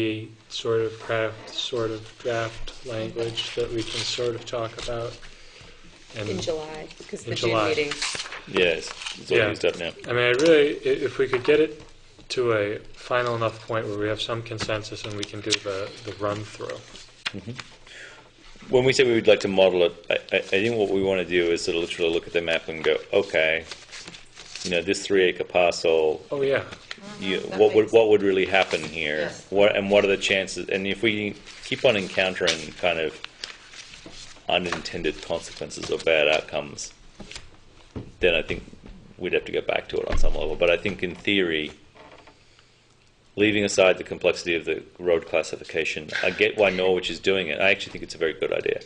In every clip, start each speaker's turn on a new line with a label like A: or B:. A: be sort of craft, sort of draft language that we can sort of talk about.
B: In
A: And,
B: July, because
A: In
B: the June
A: July.
B: meeting.
C: Yeah, it's, it's all
A: Yeah.
C: used up now.
A: I mean, I really, i- if we could get it to a final enough point where we have some consensus and we can do the, the run-through.
C: When we say we would like to model it, I, I, I think what we want to do is sort of literally look at the map and go, okay, you know, this three acre parcel,
A: Oh, yeah,
C: you,
B: that
C: what would
B: makes-
C: what would really happen here?
B: Yes.
C: What and what are the chances? And if we keep on encountering kind of unintended consequences or bad outcomes, then I think we'd have to go back to it on some level. But I think in theory, leaving aside the complexity of the road classification, I get why Norwich is doing it. I actually think it's a very good idea.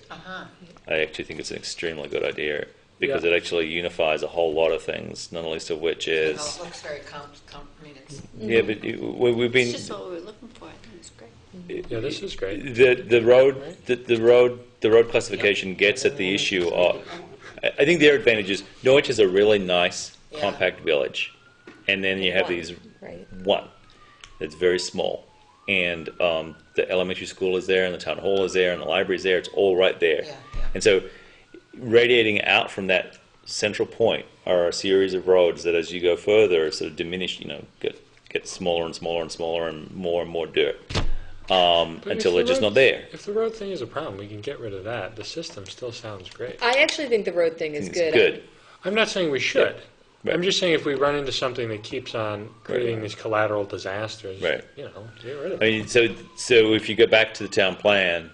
C: I actually think it's an extremely good idea because
A: Yeah.
C: it actually unifies a whole lot of things, not least of which
D: Oh, It
C: is
D: looks very com, com, I mean, it's,
C: yeah, but it- we- we've
E: It's
C: been,
E: just what we were looking for, I think it's great.
A: yeah, this is great.
C: the, the road, the, the road, the road classification gets at the issue of, I, I think their advantage is Norwich is a really nice,
D: Yeah.
C: compact village. And then you have
B: One,
C: these,
B: Right.
C: one, that's very small. And, um, the elementary school is there and the town hall is there and the library is there, it's all right there.
D: Yeah, yeah.
C: And so radiating out from that central point are a series of roads that, as you go further, sort of diminish. You know, get get smaller and smaller and smaller, and more and more dirt um,
A: But if
C: until
A: the
C: they're just
A: road-
C: not there.
A: If the road thing is a problem, we can get rid of that. The system still sounds great.
B: I actually think the road thing is
C: It's
B: good.
C: good.
A: I'm not saying we should.
C: Right.
A: I'm just saying if we run into something that keeps on creating these collateral disasters,
C: Right.
A: you know, get rid of
C: I
A: it.
C: mean, so so if you go back to the town plan,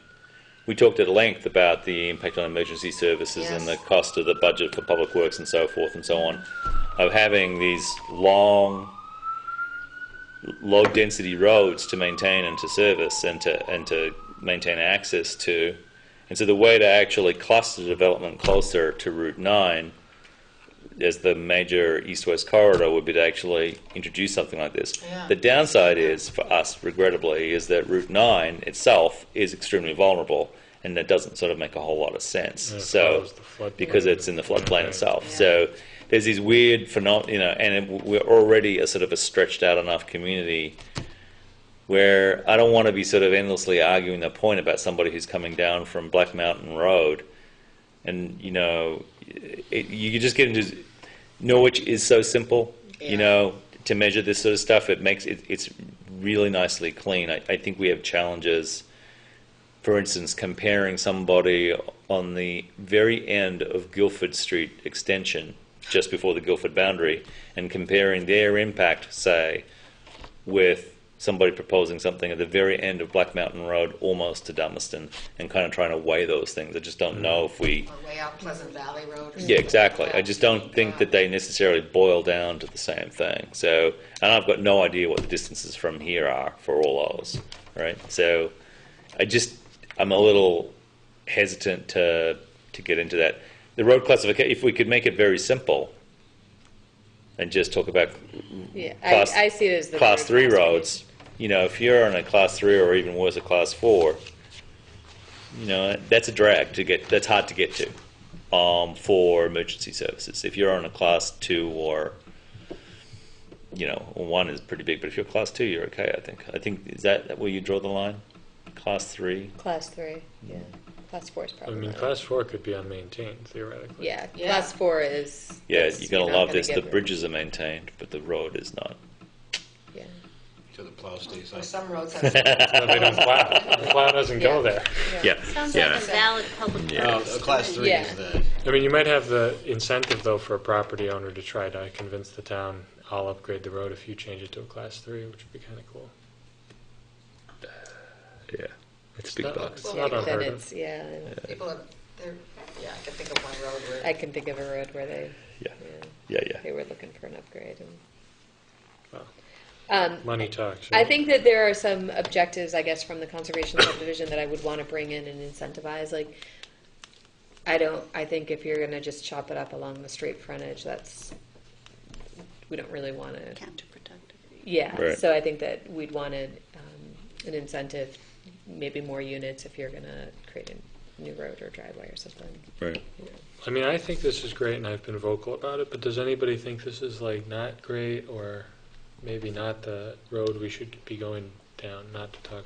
C: we talked at length about the impact on emergency services and the
D: Yes.
C: cost of the budget for public works and so forth and so on, of having these long, low-density roads to maintain and to service and to and to maintain access to, and so the way to actually cluster development closer to Route Nine as the major east-west corridor would be to actually introduce something like this.
D: Yeah.
C: The downside is for us, regrettably, is that Route Nine itself is extremely vulnerable, and that doesn't sort of make a whole lot of sense.
A: Yeah, it
C: so
A: follows the floodplain.
C: because it's in the floodplain
A: Yeah.
C: itself,
D: Yeah.
C: so there's these weird phenomena, you know, and it, we're already a sort of a stretched out enough community where I don't want to be sort of endlessly arguing the point about somebody who's coming down from Black Mountain Road, and you know, it, you could just get into Norwich is so simple, you
D: Yeah.
C: know, to measure this sort of stuff. It makes it, it's really nicely clean. I, I think we have challenges. For instance, comparing somebody on the very end of Guilford Street extension, just before the Guilford boundary, and comparing their impact, say, with somebody proposing something at the very end of Black Mountain Road, almost to Dummerston, and kind of trying to weigh those things. I just don't know if we.
D: or way out Pleasant Valley Road. or
C: Yeah,
D: something
C: exactly.
D: like
C: I just don't think that they necessarily boil down to the same thing. So, and I've got no idea what the distances from here are for all those, right? So, I just I'm a little hesitant to to get into that. The road classification, if we could make it very simple, and just talk about
B: Yeah,
C: Class-
B: I, I see it as the
C: class
B: road
C: three
B: class
C: roads, you know, if you're on a class three or even worse, a class four, you know, that's a drag to get, that's hard to get to um, for emergency services. If you're on a class two or, you know, one is pretty big, but if you're class two, you're okay, I think. I think, is that where you draw the line? Class three?
B: Class three, yeah. Class four is
A: I
B: probably.
A: mean,
B: not.
A: class four could be unmaintained theoretically.
B: Yeah,
D: Yeah.
B: class four is.
C: Yeah,
B: that's-
C: you're going to
B: not
C: love
B: gonna
C: this. The
B: get rid-
C: bridges are maintained, but the road is not.
B: Yeah.
F: to the plow stays
D: Or
F: on.
D: some roads have.
A: So they don't plow. The plow doesn't go there.
C: Yeah.
E: Sounds
C: yeah.
E: like a valid public
F: Uh,
E: purpose.
F: class three
B: Yeah.
F: is the,
A: I mean, you might have the incentive though for a property owner to try to convince the town, I'll upgrade the road if you change it to a class three, which would be kind of cool.
C: yeah. It's
A: not-
C: big bucks.
A: It's not
B: Then
A: unheard of.
B: it's- Yeah,
D: People have, they're, yeah, I can think of one road where.
B: I can think of a road where they,
C: Yeah.
B: yeah,
C: Yeah, yeah.
B: they were looking for an upgrade and.
A: Well,
B: Um,
A: Money talks.
B: I
A: right?
B: think that there are some objectives, I guess, from the conservation subdivision that I would want to bring in and incentivize, like, I don't, I think if you're gonna just chop it up along the street frontage, that's, we don't really want to,
E: Counterproductive.
B: yeah,
C: Right.
B: so I think that we'd want an, um, an incentive, maybe more units if you're gonna create a new road or driveway or something.
C: Right.
B: you know.
A: I mean, I think this is great and I've been vocal about it, but does anybody think this is like not great or maybe not the road we should be going down, not to talk